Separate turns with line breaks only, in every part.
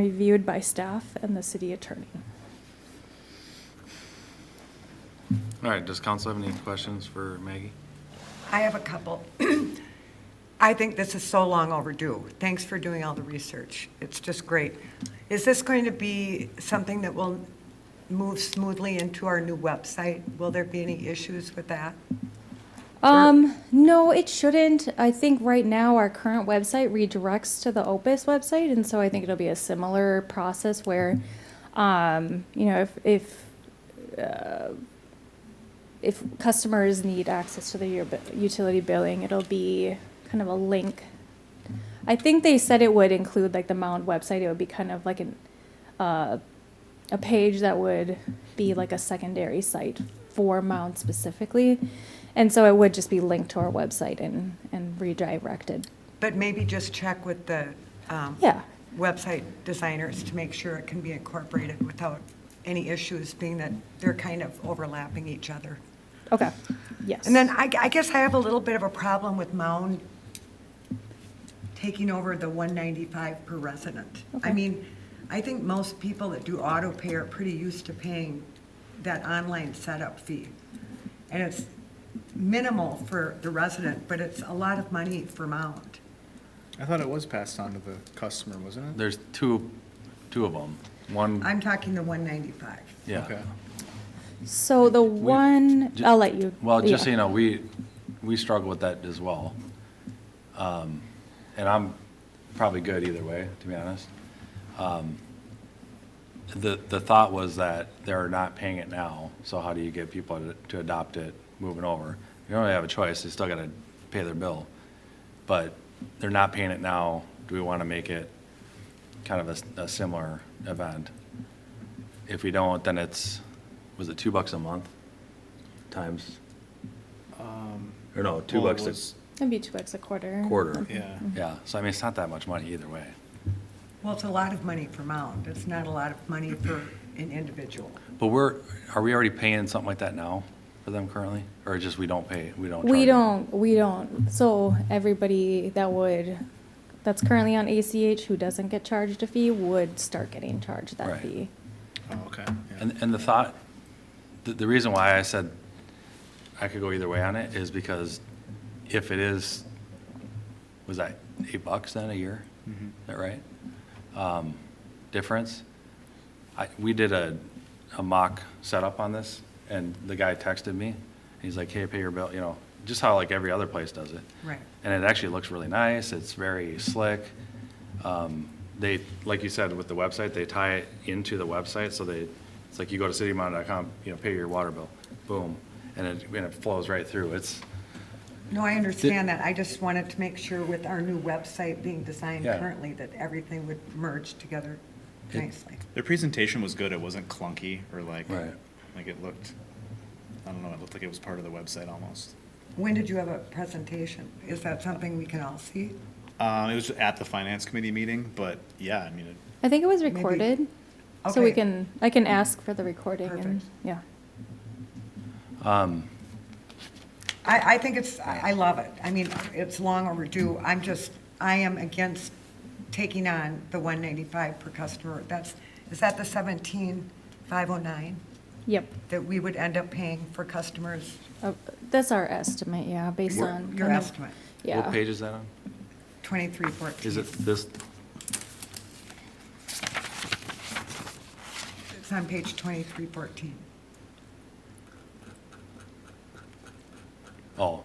reviewed by staff and the city attorney.
All right, does council have any questions for Maggie?
I have a couple. I think this is so long overdue. Thanks for doing all the research. It's just great. Is this going to be something that will move smoothly into our new website? Will there be any issues with that?
Um, no, it shouldn't. I think right now our current website redirects to the Opus website, and so I think it'll be a similar process where, um, you know, if if uh, if customers need access to their u- utility billing, it'll be kind of a link. I think they said it would include like the Mound website. It would be kind of like an uh, a page that would be like a secondary site for Mound specifically. And so it would just be linked to our website and, and redirected.
But maybe just check with the um,
Yeah.
website designers to make sure it can be incorporated without any issues, being that they're kind of overlapping each other.
Okay. Yes.
And then I, I guess I have a little bit of a problem with Mound taking over the one ninety-five per resident. I
Okay.
mean, I think most people that do auto pay are pretty used to paying that online setup fee. And it's minimal for the resident, but it's a lot of money for Mound.
I thought it was passed on to the customer, wasn't it?
There's two, two of them. One,
I'm talking the one ninety-five.
yeah.
Okay.
so the one,
ju-
I'll let you.
Well, just so
yeah.
you know, we, we struggle with that as well. Um, And I'm probably good either way, to be honest. Um, The, the thought was that they're not paying it now, so how do you get people to- to adopt it moving over? You don't really have a choice, they still got to pay their bill. But they're not paying it now, do we want to make it kind of a s- a similar event? If we don't, then it's, was it two bucks a month times? Or no, two
Um, Well, it
bucks
was-
a
It'd be two bucks a quarter.
quarter.
Yeah.
Yeah, so I mean, it's not that much money either way.
Well, it's a lot of money for Mound. It's not a lot of money for an individual.
But we're, are we already paying something like that now for them currently? Or just we don't pay, we don't charge?
We
them?
don't, we don't. So everybody that would, that's currently on ACH who doesn't get charged a fee would start getting charged that
Right.
fee.
Oh, okay. yeah.
And, and the thought, the, the reason why I said I could go either way on it is because if it is, was that eight bucks then a year? Is that right? Um, difference? I, we did a, a mock setup on this and the guy texted me. He's like, hey, pay your bill, you know, just how like every other place does it.
Right.
And it actually looks really nice. It's very slick. Um, They, like you said, with the website, they tie it into the website, so they, it's like you go to citymonitor.com, you know, pay your water bill, boom, and it, and it flows right through. It's,
No, I understand that. I just wanted to make sure with our new website being designed
Yeah.
currently, that everything would merge together
It-
nicely.
Their presentation was good. It wasn't clunky or like,
Right.
like it looked, I don't know, it looked like it was part of the website almost.
When did you have a presentation? Is that something we can all see?
Um, it was at the finance committee meeting, but yeah, I mean, it,
I think it was recorded. So we
Okay.
can, I can ask for the recording and,
Perfect.
yeah.
um,
I, I think it's, I I love it. I mean, it's long overdue. I'm just, I am against taking on the 195 per customer. That's, is that the 17,509
Yep.
that we would end up paying for customers?
Uh, That's our estimate, yeah, based
Your-
on. oh-
Your
kind of-
estimate,
Yeah.
what page is that on?
2314.
Is it this,
It's on page 2314.
oh.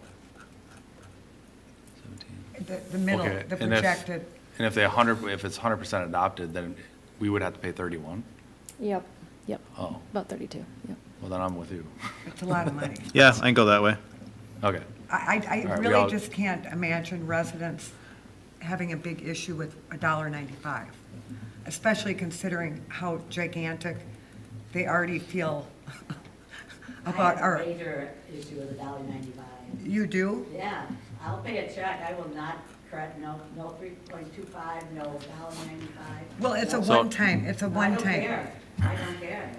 17.
The, the middle,
Okay,
the
and if-
projected,
And if they 100, if it's 100% adopted, then we would have to pay 31?
Yep, yep.
Oh,
About 32, yep.
well, then I'm with you.
it's a lot of money.
yeah, I can go that way.
Okay,
I, I-
All
I
right, we
really
all-
just can't imagine residents having a big issue with a dollar ninety-five, especially considering how gigantic they already feel about
I
our,
have a major issue with a dollar ninety-five.
you do?
Yeah, I'll pay a check, I will not cut, no, no three point two five, no dollar ninety-five.
Well, it's a
So-
one-time, it's a
I don't
one-time.
care, I don't care.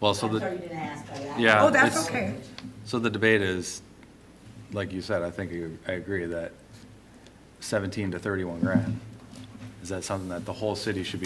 well,
I'm
so the.
sorry you didn't ask, but I.
Yeah,
Oh, that's
it's-
okay.
So the debate is, like you said, I think you- I agree that 17 to 31 grand Is that something that the whole city should be